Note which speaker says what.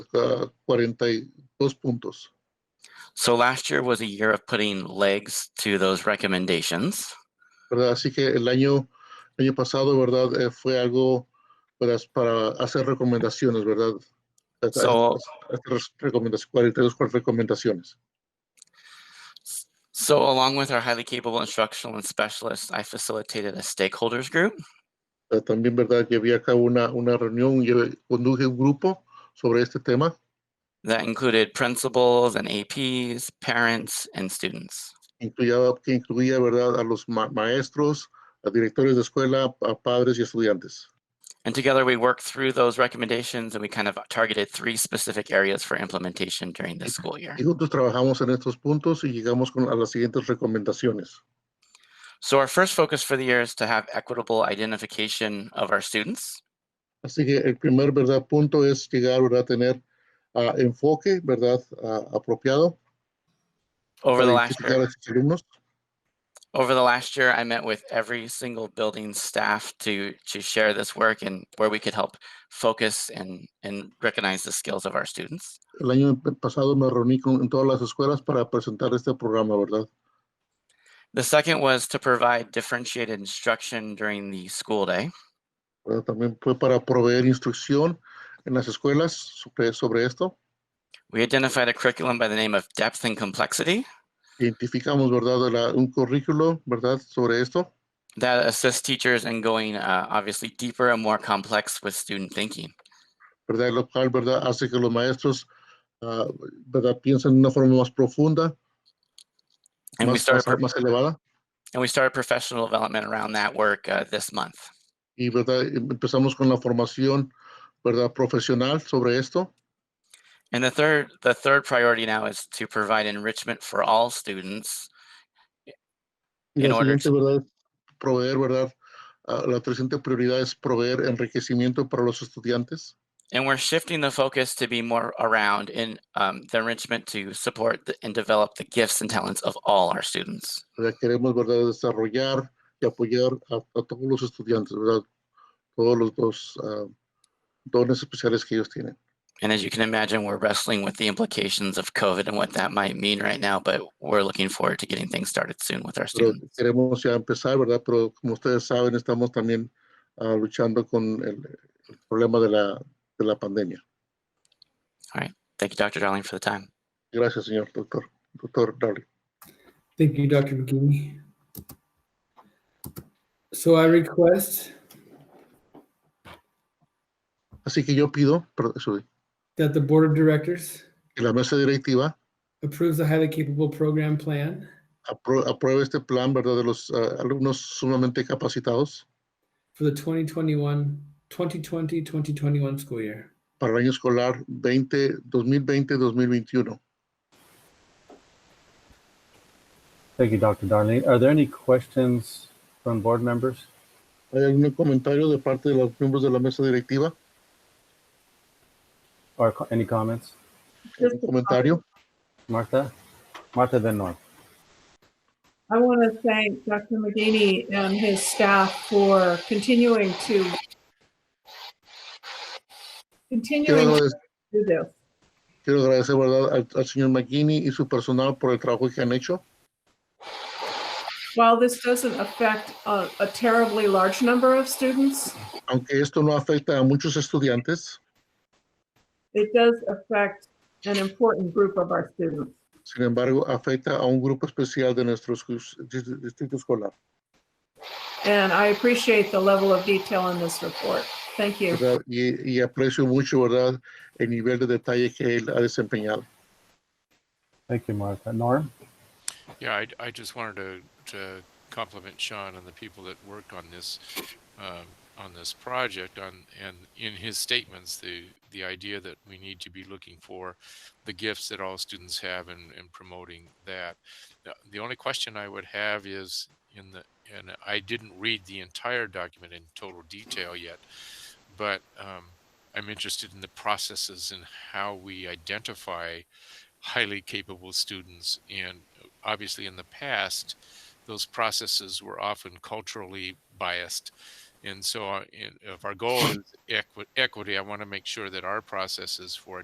Speaker 1: ah, 42 puntos.
Speaker 2: So last year was a year of putting legs to those recommendations.
Speaker 1: ¿verdad? Así que el año, el año pasado, ¿verdad? Eh, fue algo ¿verdad? para hacer recomendaciones, ¿verdad? Hacer-
Speaker 2: So-
Speaker 1: hacer recomendaciones, 42 recomendaciones.
Speaker 2: So along with our highly capable instructional and specialists, I facilitated a stakeholders group.
Speaker 1: Eh, También, ¿verdad? Llevé a cabo una, una reunión, llevé- conduje un grupo sobre este tema
Speaker 2: that included principals and APs, parents, and students.
Speaker 1: incluía, que incluía, ¿verdad? A los ma- maestros, a directores de escuela, a padres y estudiantes.
Speaker 2: And together we worked through those recommendations and we kind of targeted three specific areas for implementation during this school year.
Speaker 1: Y juntos trabajamos en estos puntos y llegamos con, a las siguientes recomendaciones.
Speaker 2: So our first focus for the year is to have equitable identification of our students.
Speaker 1: Así que el primer verdad punto es llegar ¿verdad? a tener ah, enfoque verdad Ah, apropiado
Speaker 2: Over the
Speaker 1: para
Speaker 2: last
Speaker 1: identificar
Speaker 2: year,
Speaker 1: a sus alumnos.
Speaker 2: over the last year, I met with every single building staff to to share this work and where we could help focus and and recognize the skills of our students.
Speaker 1: El año pasado me reuní con en todas las escuelas para presentar este programa, ¿verdad?
Speaker 2: The second was to provide differentiated instruction during the school day.
Speaker 1: ¿Verdad? También fue para proveer instrucción en las escuelas sobre, sobre esto.
Speaker 2: We identified a curriculum by the name of Depth and Complexity
Speaker 1: Identificamos, ¿verdad?, la- un currículo, ¿verdad?, sobre esto,
Speaker 2: that assists teachers in going uh, obviously deeper and more complex with student thinking.
Speaker 1: ¿verdad?, lo cual, ¿verdad?, hace que los maestros, ah, ¿verdad?, piensen de una forma más profunda,
Speaker 2: And we
Speaker 1: más,
Speaker 2: started
Speaker 1: más-
Speaker 2: pro-
Speaker 1: más elevada.
Speaker 2: and we started professional development around that work uh, this month.
Speaker 1: y verdad Em- empezamos con la formación verdad profesional sobre esto
Speaker 2: And the third the third priority now is to provide enrichment for all students.
Speaker 1: y
Speaker 2: En
Speaker 1: la
Speaker 2: orden.
Speaker 1: siguiente verdad es proveer verdad Ah, la presente prioridad es proveer enriquecimiento para los estudiantes
Speaker 2: And we're shifting the focus to be more around in um, the enrichment to support the, and develop the gifts and talents of all our students.
Speaker 1: ¿verdad? queremos verdad desarrollar y apoyar a, a todos los estudiantes verdad todos los dos ah, dones especiales que ellos tienen
Speaker 2: And as you can imagine, we're wrestling with the implications of COVID and what that might mean right now, but we're looking forward to getting things started soon with our
Speaker 1: pero
Speaker 2: students.
Speaker 1: queremos ya empezar verdad pero como ustedes saben estamos también ah, luchando con el, el problema de la de la pandemia
Speaker 2: Thank you, Dr. Darling, for the time.
Speaker 1: gracias señor doctor doctor Darling.
Speaker 3: Thank you, Dr. McGee. So I request
Speaker 1: Así que yo pido perdón, sorry,
Speaker 3: that the Board of Directors
Speaker 1: que la mesa directiva
Speaker 3: approves the highly capable program plan
Speaker 1: apro- apruebe este plan ¿verdad? de los ah, alumnos sumamente capacitados
Speaker 3: for the 2021, 2020, 2021 school year.
Speaker 1: para el año escolar 20, 2020-2021.
Speaker 4: Thank you, Dr. Darling. Are there any questions from board members?
Speaker 1: ¿Hay algún comentario de parte de los miembros de la mesa directiva?
Speaker 4: Or co- any comments?
Speaker 1: ¿Un comentario?
Speaker 4: Martha? Martha Van Norm.
Speaker 5: I want to thank Dr. McGinty and his staff for continuing to
Speaker 1: Quiero,
Speaker 5: continuing to
Speaker 1: agradec-
Speaker 5: do this.
Speaker 1: quiero agradecer ¿verdad? Al, al señor McGinney y su personal por el trabajo que han hecho.
Speaker 5: While this doesn't affect a a terribly large number of students,
Speaker 1: Aunque esto no afecta a muchos estudiantes,
Speaker 5: it does affect an important group of our students.
Speaker 1: sin embargo, afecta a un grupo especial de nuestro escu- dis- distrito escolar.
Speaker 5: And I appreciate the level of detail in this report. Thank you.
Speaker 1: ¿verdad? Y, y aprecio mucho ¿verdad? el nivel de detalle que él ha desempeñado.
Speaker 4: Thank you, Martha. Norm?
Speaker 6: Yeah, I, I just wanted to, to compliment Sean and the people that work on this, um, on this project on, and in his statements, the, the idea that we need to be looking for the gifts that all students have and, and promoting that. The- The only question I would have is in the, and I didn't read the entire document in total detail yet, but, um, I'm interested in the processes and how we identify highly capable students and obviously in the past, those processes were often culturally biased. And so, uh, in- if our goal is equi- equity, I want to make sure that our processes for